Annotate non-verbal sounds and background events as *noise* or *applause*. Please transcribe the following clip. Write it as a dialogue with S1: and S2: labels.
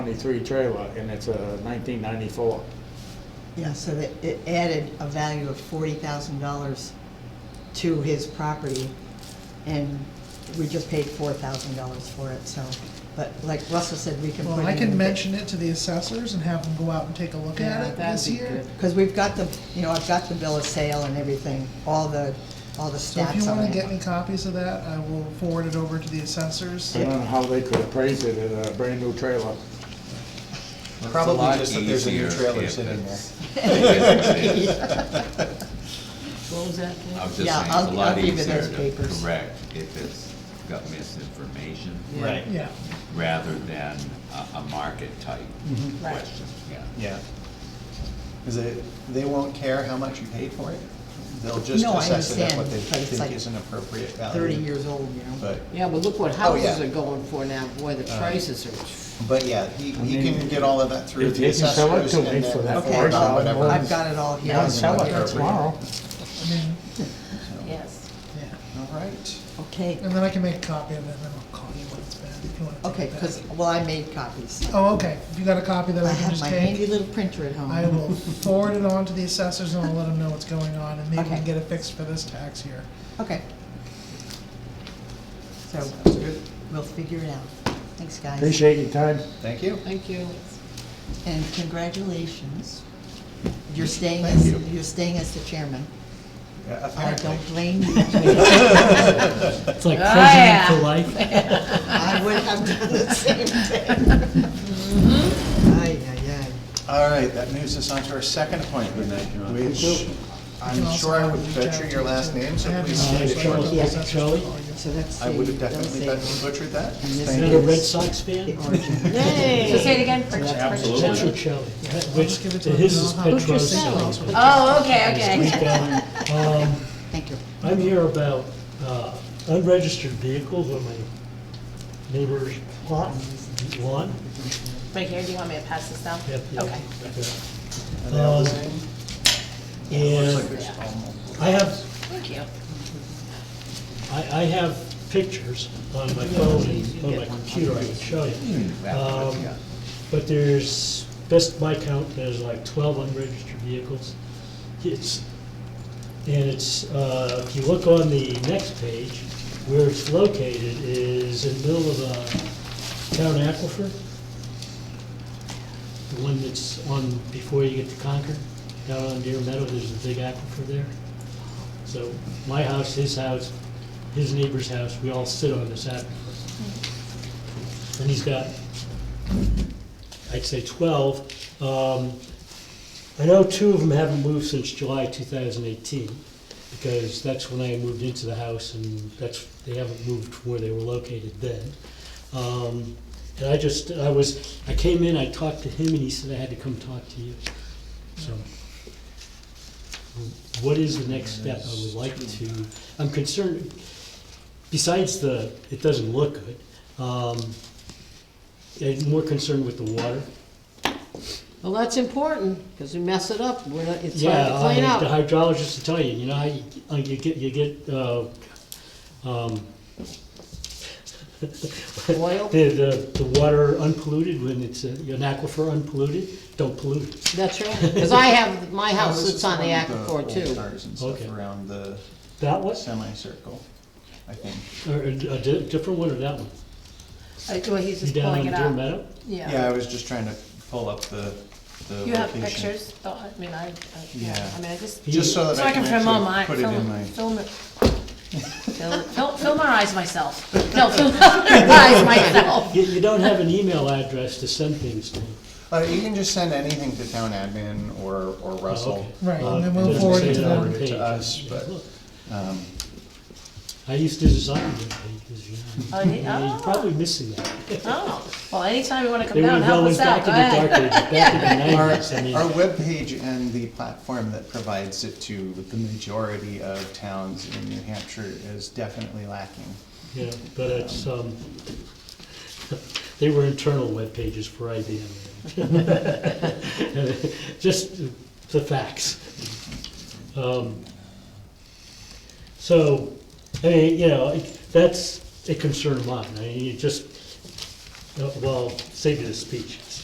S1: 23 trailer, and it's a 1994.
S2: Yeah, so that it added a value of forty thousand dollars to his property, and we just paid four thousand dollars for it, so, but like Russell said, we can put it
S3: Well,
S2: in.
S3: I can mention it to the assessors and have them go out and take a look
S4: Yeah,
S3: at it
S4: that'd
S3: this
S4: be
S3: year.
S4: good.
S2: Because we've got the, you know, I've got the bill of sale and everything, all the, all the
S3: So if you
S2: stats on
S3: wanna get me
S2: it.
S3: copies of that, I will forward it over to the assessors.
S1: I don't know how they could appraise it at a brand-new trailer.
S5: Probably just that there's a new trailer sitting there.
S4: *laughs* What was that? Dave?
S6: I'm just
S2: Yeah,
S6: saying, it's
S2: I'll-
S6: a lot
S2: I'll give you
S6: easier
S2: those
S6: to
S2: papers.
S6: correct if it's got misinformation
S4: Yeah.
S5: Right.
S3: Yeah,
S6: rather than a, a market type
S2: Mm-hmm.
S4: Right.
S6: question, yeah.
S5: Yeah. Because they, they won't care how much you pay for it. They'll just
S2: No, I
S5: assess it at what they
S2: understand, but it's
S5: think
S2: like
S5: is an appropriate value.
S2: Thirty years old, you know.
S5: But,
S4: Yeah, but look what
S5: Oh, yeah. Uh,
S4: houses are going for now, boy, the prices are,
S5: but yeah, he, he
S1: mean,
S5: can get all of that through
S1: if
S5: the
S1: you can sell it
S5: assessors
S1: to
S5: and
S1: me
S5: then.
S1: for that
S5: forward
S2: Okay,
S5: on
S2: I'll-
S5: whatever.
S2: I've got it all here.
S1: I'll sell
S5: Yeah.
S1: it tomorrow.
S3: I mean,
S5: So,
S4: yes.
S3: yeah.
S5: All right.
S2: Okay,
S3: And then I can make a copy of it and then I'll call you when it's back if you wanna take
S2: okay,
S3: it back.
S2: because, well, I made copies.
S3: Oh, okay, if you got a copy that
S2: I
S3: I can
S2: have
S3: just
S2: my handy
S3: take,
S2: little printer at home.
S3: I will forward it on to the assessors and I'll let them know what's going on and maybe we
S2: Okay.
S3: can get it fixed for this tax year.
S2: Okay. So, we'll figure it out. Thanks, guys.
S1: Appreciate your time.
S5: Thank you.
S4: Thank you.
S2: And congratulations. You're staying
S5: Thank
S2: as,
S5: you.
S2: you're staying as the chairman.
S5: Yeah,
S2: I
S5: Apparently.
S2: don't blame you.
S7: It's like
S4: Ah,
S7: president
S4: yeah.
S7: for life.
S2: I would have done the same thing. Ay, ay,
S5: All right, that moves us on to our second appointment, which
S3: You
S5: I'm
S3: can also
S5: sure I
S3: have
S5: would
S3: it
S5: butcher
S3: redacted
S5: your last
S3: too.
S5: name, so
S3: I have
S5: please
S3: it
S5: state
S3: on
S5: it
S3: the
S5: for
S7: Shelley.
S5: us.
S3: assessors'
S7: Yeah,
S3: file.
S7: Shelley.
S2: ay. So that's.
S5: I would have
S2: the- don't say
S5: definitely but- butchered that.
S2: And this
S5: Thank
S2: is-
S5: you.
S7: Another Red Sox fan?
S2: the origin.
S4: Hey.
S8: Say it again. Purchase, purchase.
S7: Patrick Shelley, that- which,
S3: give it to them.
S7: his is
S3: I'll have it.
S7: Petros
S3: Petros.
S7: Shelley.
S8: Oh, okay, okay. *laughs*
S7: Um,
S2: Thank you.
S7: I'm here about uh, unregistered vehicles on my neighbor's lot, lawn.
S8: Right here, do you want me to pass this down?
S7: Yep, yep,
S8: Okay.
S7: yep.
S5: Are they all the
S7: Um,
S5: same?
S7: And I have
S8: Thank you.
S7: I, I have pictures on my phone and on my computer, I can show you. Um, But there's, best by count, there's like twelve unregistered vehicles. It's, and it's, uh, if you look on the next page, where it's located is in the middle of a town aquifer. The one that's on, before you get to Concord, down on Deer Meadow, there's a big aquifer there. So my house, his house, his neighbor's house, we all sit on this aquifer. And he's got, I'd say twelve. Um, I know two of them haven't moved since July two thousand eighteen, because that's when I moved into the house, and that's, they haven't moved where they were located then. Um, and I just, I was, I came in, I talked to him, and he said I had to come talk to you, so. What is the next step? I would like to, I'm concerned, besides the, it doesn't look good, um, I'm more concerned with the water.
S4: Well, that's important, because we mess it up, we're not, it's hard
S7: Yeah,
S4: to
S7: I-
S4: clean
S7: The
S4: up.
S7: hydrologist will tell you, you know, how you, uh, you get, you get, uh, um,
S4: Oil?
S7: *laughs* the, the, the water unpolluted when it's, uh, an aquifer unpolluted, don't pollute it.
S4: That's right, because I have, my
S5: Oh,
S4: house
S5: this
S4: sits
S5: is
S4: on the
S5: one with
S4: aquifer
S5: old
S4: too.
S5: Cars and stuff
S7: Okay.
S5: around the
S7: That one,
S5: semicircle, I think.
S7: or a di- different one or that one?
S8: Uh, Well, he's
S7: You
S8: just
S7: down
S8: pulling
S7: in
S8: it
S7: Deer
S8: up.
S7: Meadow?
S5: Yeah,
S8: Yeah.
S5: I was just trying to pull up the, the location.
S8: You have pictures? Don't- I mean, I, I- yeah,
S5: Yeah.
S8: I mean, I just,
S5: Just so that
S8: so I can film all my,
S5: actually put it in
S8: film,
S5: my.
S8: film
S5: *laughs*
S8: it. Film- Film, filmarize myself. No, *laughs*
S7: *laughs*
S8: filmarize myself.
S7: You, you don't have an email address to send things to.
S5: Uh, you can just send anything to town admin or, or Russell.
S3: Right,
S7: okay. Uh,
S3: and then
S7: it
S3: we'll
S7: doesn't
S3: forward
S7: say
S3: it to
S7: that
S3: them.
S7: on the
S5: Forward it to
S7: page.
S5: us,
S7: Yeah,
S5: but-
S7: look,
S5: Um,
S7: I used to design the pages, you know.
S8: Oh, yeah.
S7: You're Probably missing that.
S8: Oh, well, anytime you wanna come
S7: They
S8: down,
S7: would've
S8: help
S7: always
S8: us out,
S7: back
S8: go
S7: in the dark
S8: ahead.
S7: ages, back in
S8: *laughs*
S7: the
S5: Our,
S7: nineties, I mean.
S5: our webpage and the platform that provides it to the majority of towns in New Hampshire is definitely lacking.
S7: Yeah, but it's, um, *laughs* they were internal web pages for IBM. *laughs* Just the facts. Um, So, I mean, you know, it- that's a concern of mine. I mean, you just, uh, well, save you the speech.